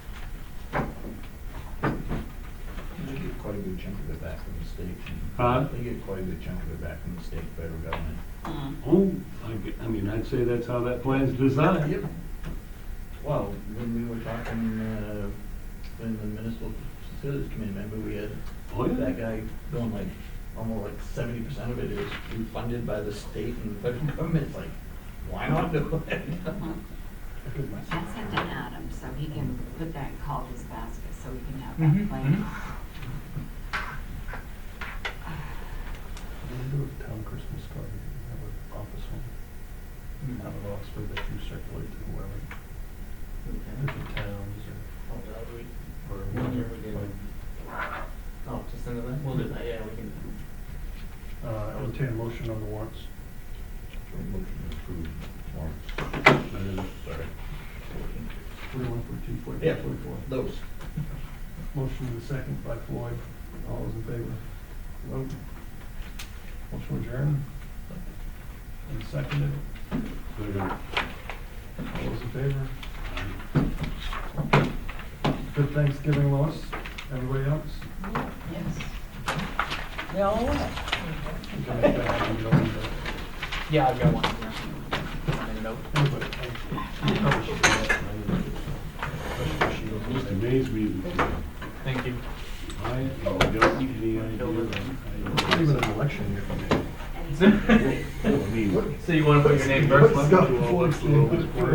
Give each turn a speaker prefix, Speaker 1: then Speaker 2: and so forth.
Speaker 1: quite a good chunk of it back from the state.
Speaker 2: Huh?
Speaker 1: They get quite a good chunk of it back from the state, federal government.
Speaker 3: Mhm.
Speaker 2: Oh, I, g- I mean, I'd say that's how that plan's designed.
Speaker 1: Yep. Well, when we were talking, uh, when the municipal facilities committee member, we had
Speaker 2: Oh, yeah.
Speaker 1: that guy going like, almost like seventy percent of it is funded by the state and the federal government, It's like, why not do it?
Speaker 3: I sent an Adam, so he can put that in Calder's basket, so we can have
Speaker 1: Mhm,
Speaker 3: that planned.
Speaker 4: Can we do a town Christmas card? Have an office one, have an officer that you circulate to whoever, different towns or, or
Speaker 5: Wonder
Speaker 4: whatever.
Speaker 5: if we did.
Speaker 4: like,
Speaker 5: Oh, just another, one? we'll do that, yeah, we can.
Speaker 4: Uh, I would take a motion on the warrants.
Speaker 1: Motion to approve warrant. Sorry.
Speaker 4: Forty-one, forty-two, forty-three,
Speaker 1: Yeah,
Speaker 4: forty-four.
Speaker 1: those.
Speaker 4: Motion in the second by Floyd. All those in favor? Vote. Motion adjourned. And seconded.
Speaker 2: Second.
Speaker 4: All those in favor? Good Thanksgiving, Lois. Everybody else?
Speaker 3: Yes.
Speaker 4: You can make that happen, you don't need to-
Speaker 5: Yeah, I've got one. yeah. Made a note.
Speaker 4: Everybody, thank you. You probably should do that, and I didn't do it. Especially she was-
Speaker 2: Just amazed me. that
Speaker 5: Thank you.
Speaker 2: I don't have any idea.
Speaker 4: It's Even an election year.
Speaker 3: And he-
Speaker 2: I mean,
Speaker 5: So you wanna put your name first? Glenn?
Speaker 4: Let's go.